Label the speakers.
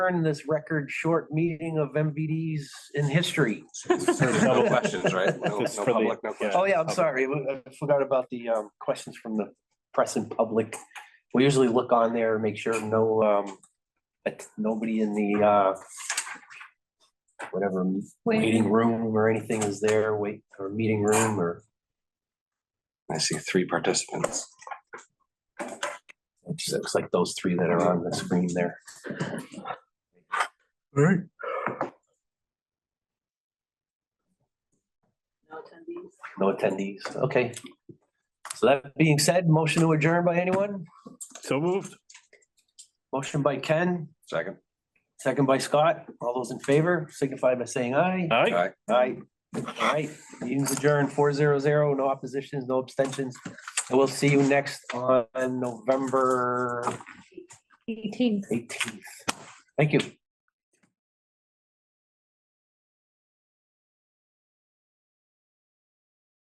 Speaker 1: adjourn this record short meeting of MVDs in history.
Speaker 2: No questions, right? No
Speaker 3: It's
Speaker 2: no
Speaker 3: for the-
Speaker 2: public, no questions.
Speaker 1: Oh, yeah, I'm sorry. I forgot about the um, questions from the press and public. We usually look on there, and make sure no, um, that nobody in the, uh, whatever, waiting room or anything is there, wait, or meeting room or
Speaker 2: I see three participants.
Speaker 1: it just looks like those three that are on the screen there. No attendees. Okay. So that being said, motion to adjourn by anyone?
Speaker 3: So moved.
Speaker 1: Motion by Ken,
Speaker 2: Second.
Speaker 1: second by Scott. All those in favor signify by saying aye.
Speaker 3: All right.
Speaker 2: Aye.
Speaker 1: Aye. Aye. Meeting's adjourned, four zero zero, no oppositions, no abstentions. And we'll see you next on November
Speaker 4: Eighteen.
Speaker 1: eighteenth. Thank you.